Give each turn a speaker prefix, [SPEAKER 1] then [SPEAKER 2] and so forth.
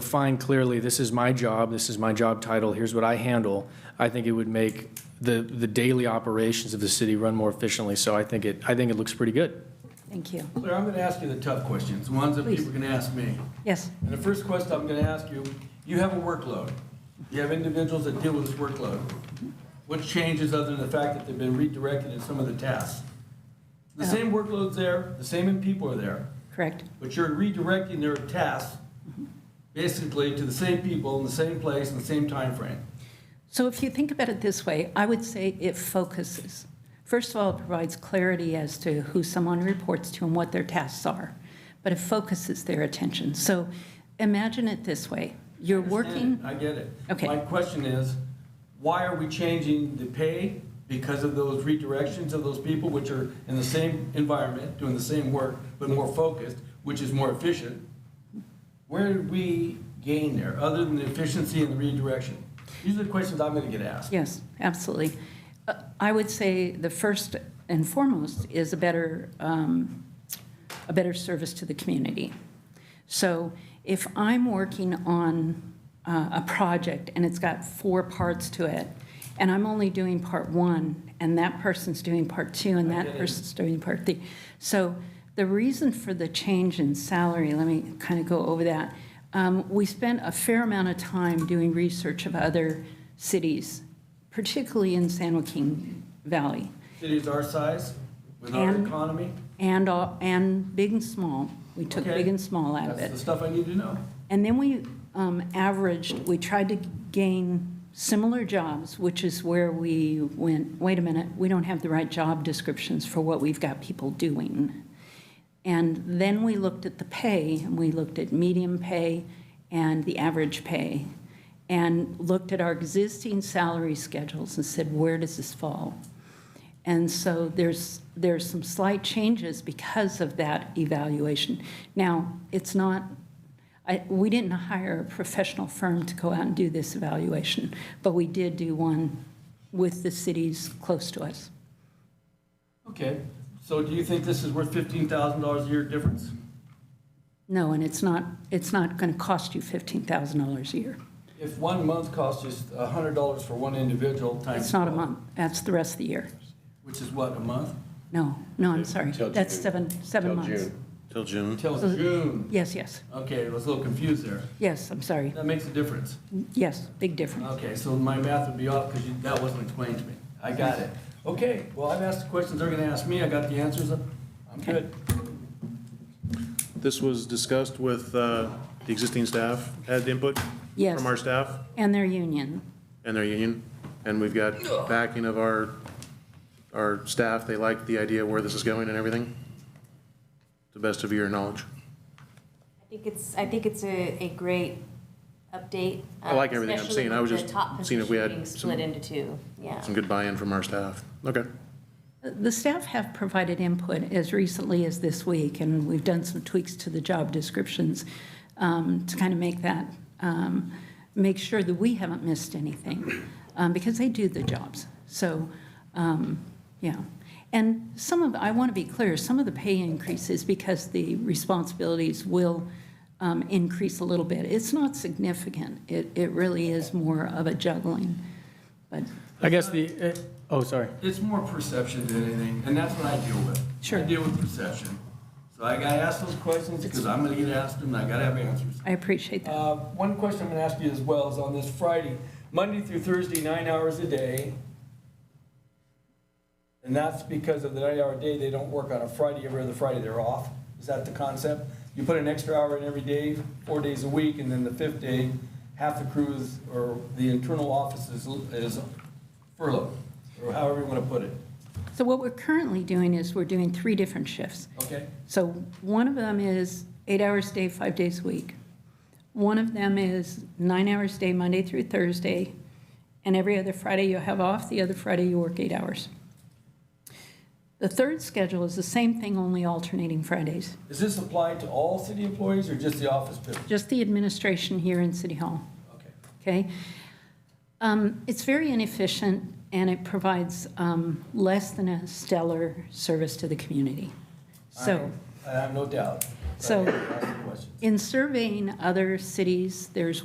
[SPEAKER 1] define clearly, this is my job, this is my job title, here's what I handle, I think it would make the, the daily operations of the city run more efficiently. So I think it, I think it looks pretty good.
[SPEAKER 2] Thank you.
[SPEAKER 3] Claire, I'm going to ask you the tough questions, the ones that
[SPEAKER 2] Please.
[SPEAKER 3] people are going to ask me.
[SPEAKER 2] Yes,
[SPEAKER 3] And the first question I'm going to ask you, you have a workload. You have individuals that deal with this workload. What changes other than the fact that they've been redirected in some of the tasks? The same workload's there, the same people are there,
[SPEAKER 2] correct.
[SPEAKER 3] but you're redirecting their tasks basically to the same people in the same place in the same time frame.
[SPEAKER 2] So if you think about it this way, I would say it focuses. First of all, it provides clarity as to who someone reports to and what their tasks are, but it focuses their attention. So imagine it this way. You're working,
[SPEAKER 3] I get it.
[SPEAKER 2] Okay.
[SPEAKER 3] My question is, why are we changing the pay because of those redirections of those people which are in the same environment, doing the same work, but more focused, which is more efficient? Where did we gain there, other than the efficiency and the redirection? These are the questions I'm gonna get asked.
[SPEAKER 2] yes, absolutely. Uh, I would say the first and foremost is a better, um, a better service to the community. So if I'm working on uh, a project and it's got four parts to it, and I'm only doing part one, and that person's doing part two, and that person's doing part three. So the reason for the change in salary, let me kind of go over that. Um, We spent a fair amount of time doing research of other cities, particularly in San Joaquin Valley
[SPEAKER 3] Cities our size, with our
[SPEAKER 2] And-
[SPEAKER 3] economy,
[SPEAKER 2] and, all- and big and small. We took
[SPEAKER 3] Okay.
[SPEAKER 2] big and small out of
[SPEAKER 3] that's
[SPEAKER 2] it.
[SPEAKER 3] the stuff I need to know.
[SPEAKER 2] And then we um, averaged, we tried to gain similar jobs, which is where we went, wait a minute, we don't have the right job descriptions for what we've got people doing. And then we looked at the pay, and we looked at median pay and the average pay, and looked at our existing salary schedules and said, where does this fall? And so there's, there's some slight changes because of that evaluation. Now, it's not, I, we didn't hire a professional firm to go out and do this evaluation, but we did do one with the cities close to us.
[SPEAKER 3] Okay, so do you think this is worth fifteen thousand dollars a year difference?
[SPEAKER 2] No, and it's not, it's not going to cost you $15,000 a year.
[SPEAKER 3] If one month costs just a hundred dollars for one individual times.
[SPEAKER 2] It's not a
[SPEAKER 3] 12,
[SPEAKER 2] month, that's the rest of the year.
[SPEAKER 3] Which is what, a month?
[SPEAKER 2] No, no, I'm sorry,
[SPEAKER 4] Till
[SPEAKER 2] that's
[SPEAKER 4] June.
[SPEAKER 2] seven, seven
[SPEAKER 4] Till
[SPEAKER 2] months.
[SPEAKER 4] June. Till June.
[SPEAKER 3] Till
[SPEAKER 2] So-
[SPEAKER 3] June.
[SPEAKER 2] Yes, yes,
[SPEAKER 3] Okay, I was a little confused there.
[SPEAKER 2] yes, I'm sorry,
[SPEAKER 3] That makes a difference.
[SPEAKER 2] yes, big difference.
[SPEAKER 3] Okay, so my math would be off because that wasn't explained to me. I got it. Okay, well, I've asked the questions they're gonna ask me. I got the answers. I'm good.
[SPEAKER 5] This was discussed with uh, the existing staff, had input
[SPEAKER 2] Yes.
[SPEAKER 5] from our staff
[SPEAKER 2] And their union,
[SPEAKER 5] and their union, and we've got backing of our, our staff. They like the idea of where this is going and everything, to the best of your knowledge.
[SPEAKER 6] I think it's, I think it's a, a great update. um,
[SPEAKER 5] I like everything I'm
[SPEAKER 6] especially
[SPEAKER 5] seeing. I was
[SPEAKER 6] with the
[SPEAKER 5] just
[SPEAKER 6] top
[SPEAKER 5] seeing if we had
[SPEAKER 6] position being
[SPEAKER 5] some-
[SPEAKER 6] Split into two, yeah.
[SPEAKER 5] Some good buy-in from our staff. Okay.
[SPEAKER 2] The staff have provided input as recently as this week, and we've done some tweaks to the job descriptions um, to kind of make that, um, make sure that we haven't missed anything, um, because they do the jobs. So, um, yeah. And some of, I want to be clear, some of the pay increases, because the responsibilities will um, increase a little bit. It's not significant. It, it really is more of a juggling, but
[SPEAKER 1] I guess the, oh, sorry.
[SPEAKER 3] It's more perception than anything, and that's what I deal with. I
[SPEAKER 2] Sure.
[SPEAKER 3] deal with perception. So I gotta ask those questions because I'm gonna get asked them and I gotta have answers.
[SPEAKER 2] I appreciate that.
[SPEAKER 3] Uh, One question I'm going to ask you as well is on this Friday, Monday through Thursday, nine hours a day. And that's because of the nine-hour day, they don't work on a Friday, every other Friday they're off. Is that the concept? You put an extra hour in every day, four days a week, and then the fifth day, half the crew is, or the internal office is is furloughed, or however you want to put it,
[SPEAKER 2] So what we're currently doing is we're doing three different shifts.
[SPEAKER 3] okay?
[SPEAKER 2] So one of them is eight hours a day, five days a week. One of them is nine hours a day, Monday through Thursday, and every other Friday you have off, the other Friday you work eight hours. The third schedule is the same thing, only alternating Fridays,
[SPEAKER 3] Is this applied to all city employees or just the office people?
[SPEAKER 2] just the administration here in City Hall.
[SPEAKER 3] Okay.
[SPEAKER 2] okay? Um, It's very inefficient, and it provides um, less than a stellar service to the community. So,
[SPEAKER 3] I have no doubt.
[SPEAKER 2] So
[SPEAKER 3] Ask the question.
[SPEAKER 2] in surveying other cities, there's